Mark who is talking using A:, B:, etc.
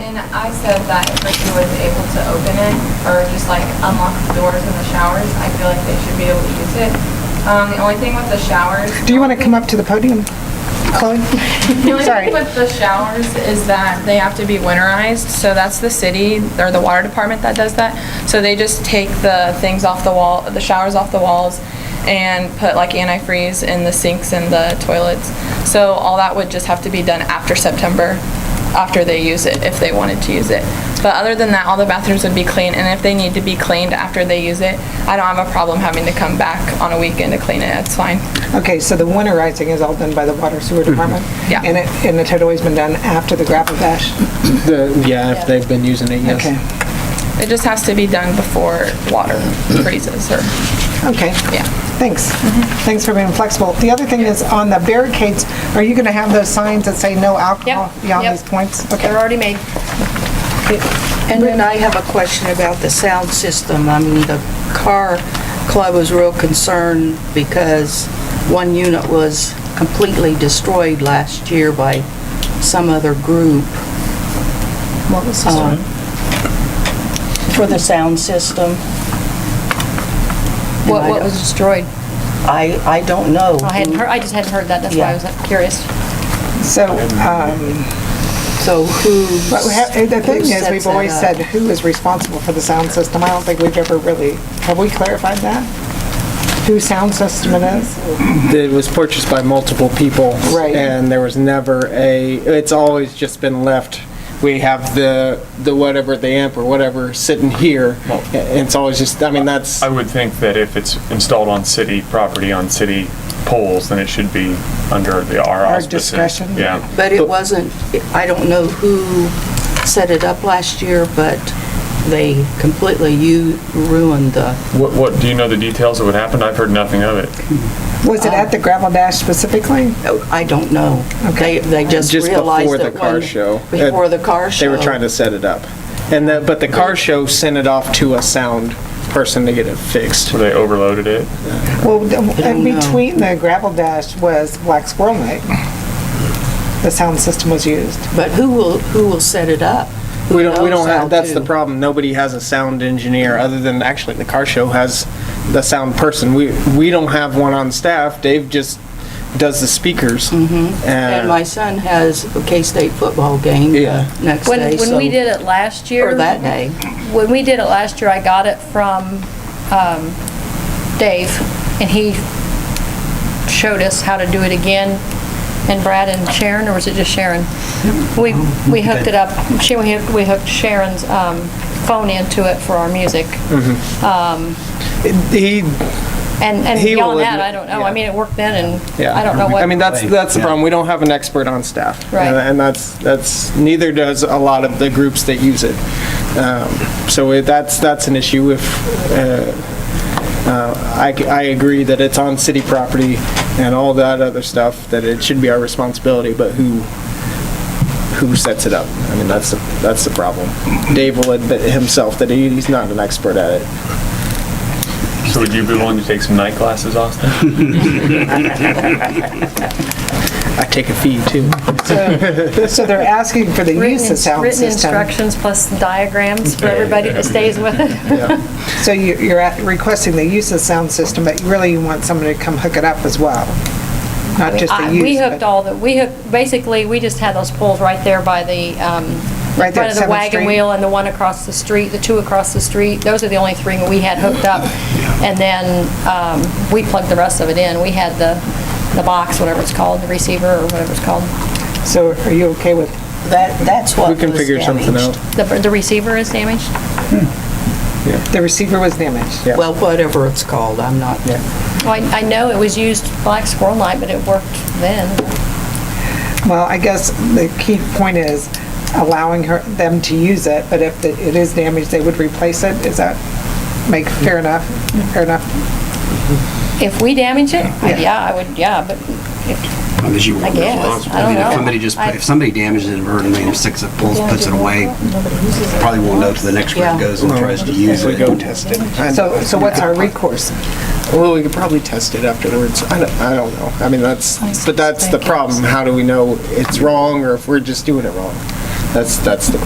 A: And I said that if Ricky was able to open it or just like unlock the doors in the showers, I feel like they should be able to use it. Um, the only thing with the showers.
B: Do you want to come up to the podium, Chloe?
A: The only
B: Sorry.
A: thing with the showers is that they have to be winterized, so that's the city or the water department that does that. So they just take the things off the wall, the showers off the walls and put like antifreeze in the sinks and the toilets. So all that would just have to be done after September, after they use it, if they wanted to use it. But other than that, all the bathrooms would be clean, and if they need to be cleaned after they use it, I don't have a problem having to come back on a weekend to clean it, it's fine.
B: Okay, so the winterizing is all done by the water sewer department?
A: Yeah.
B: And it, and it had always been done after the gravel bash?
C: The, yeah, if they've been using it,
B: Okay,
C: yes.
A: It just has to be done before water freezes or,
B: okay,
A: yeah.
B: thanks.
D: Mm-hmm.
B: Thanks for being flexible. The other thing is on the barricades, are you going to have those signs that say no alcohol
E: Yep,
B: beyond
E: yep.
B: these points?
E: They're
B: Okay.
E: already made.
D: And then I have a question about the sound system. I mean, the car club was real concerned because one unit was completely destroyed last year by some other group.
B: What was this
D: um,
B: one?
D: For the sound system.
E: What, what was destroyed?
D: I, I don't know.
E: I hadn't heard, I just hadn't heard that, that's why I was curious.
B: So, um,
D: So who?
B: but we have- the thing
D: who
B: is,
D: sets
B: we've
D: that
B: always
D: up?
B: said, who is responsible for the sound system? I don't think we've ever really, have we clarified that? Whose sound system it is?
C: It was purchased by multiple people.
B: Right.
C: And there was never a, it's always just been left, we have the, the whatever, the amp or whatever sitting here. And it's always just, I mean, that's,
F: I would think that if it's installed on city property, on city poles, then it should be under the our
B: Our
F: auspices.
B: discretion.
F: Yeah.
D: But it wasn't, I don't know who set it up last year, but they completely u- ruined the
F: What, what, do you know the details of what happened? I've heard nothing of it.
B: Was
D: Um,
B: it at the gravel dash specifically?
D: Oh, I don't know. They, they just
C: Just
D: realized
C: before
D: that
C: the car
D: one-
C: show.
D: Before the car show.
C: they were trying to set it up. And that, but the car show sent it off to a sound person to get it fixed.
F: So they overloaded it.
B: Well, the- in
D: don't know.
B: between the gravel dash was Black Squirrel Night. The sound system was used.
D: But who will, who will set it up? Who
C: We don't, we
D: knows
C: don't
D: how
C: have, that's
D: to?
C: the problem. Nobody has a sound engineer, other than, actually, the car show has the sound person. We, we don't have one on staff. Dave just does the speakers.
D: And
C: And
D: my son has a K-State football game
C: Yeah.
D: uh, next
E: When,
D: day,
E: when we
D: so,
E: did it last year.
D: or that day.
E: When we did it last year, I got it from, um, Dave, and he showed us how to do it again, and Brad and Sharon, or was it just Sharon? We,
C: Mm-hmm.
E: we hooked it up, she, we hooked- we hooked Sharon's, um, phone into it for our music.
C: Mm. he,
E: And, and
C: He will
E: beyond that,
C: admit-
E: I don't know, I
C: yeah.
E: mean, it worked then, and
C: yeah.
E: I don't know what.
C: I mean, that's, that's the problem. We don't have an expert on staff. Uh,
E: Right.
C: And- And that's, that's, neither does a lot of the groups that use it. Um, So it- that's, that's an issue if, uh, uh, I, c- I agree that it's on city property and all that other stuff, that it should be our responsibility, but who, who sets it up? I mean, that's, the that's the problem. Dave will admit himself that he- he's not an expert at it.
F: So would you be willing to take some night classes, Austin?
C: I take a fee too.
B: So so they're asking for the
E: Written
B: use of
E: ins-
B: sound
E: Written
B: system.
E: instructions plus diagrams for everybody that stays with it.
B: So you- you're at- requesting the use of sound system, but really you want somebody to come hook it up as well? Not just
E: I-
B: the use?
E: We
B: but-
E: hooked all the, we hooked, basically, we just had those poles right there by the, um,
B: Right
E: in
B: there at
E: front of the
B: 7th
E: wagon
B: Street?
E: wheel and the one across the street, the two across the street. Those are the only three we had hooked up. And then um, we plugged the rest of it in. We had the, the box, whatever it's called, the receiver or whatever it's called.
B: So are you okay with,
D: That, that's what
C: We
D: was
C: can figure something
D: damaged.
C: out.
E: The, the receiver is damaged?
B: the receiver was damaged?
C: Yeah.
D: Well, whatever it's called, I'm not,
E: Well, I I know it was used Black Squirrel Night, but it worked then.
B: Well, I guess the key point is allowing her, them to use it, but if it it is damaged, they would replace it? Is that make fair enough, fair enough?
E: If we damage it, I-
B: Yeah.
E: yeah, I would, yeah, but
G: Because you were
E: I guess.
G: responsible.
E: I
G: I mean,
E: don't
G: if
E: know.
G: somebody just,
E: I-
G: put- if somebody damages it inadvertently and sticks it, pulls, puts it away, probably won't know till the next
D: Yeah.
G: one goes and tries to use
C: We
G: it.
C: go test it. I know.
B: So, so what's our recourse?
C: Well, we could probably test it afterwards. I don't, I don't know. I mean, that's, but that's the problem. How do we know it's wrong or if we're just doing it wrong? That's, that's the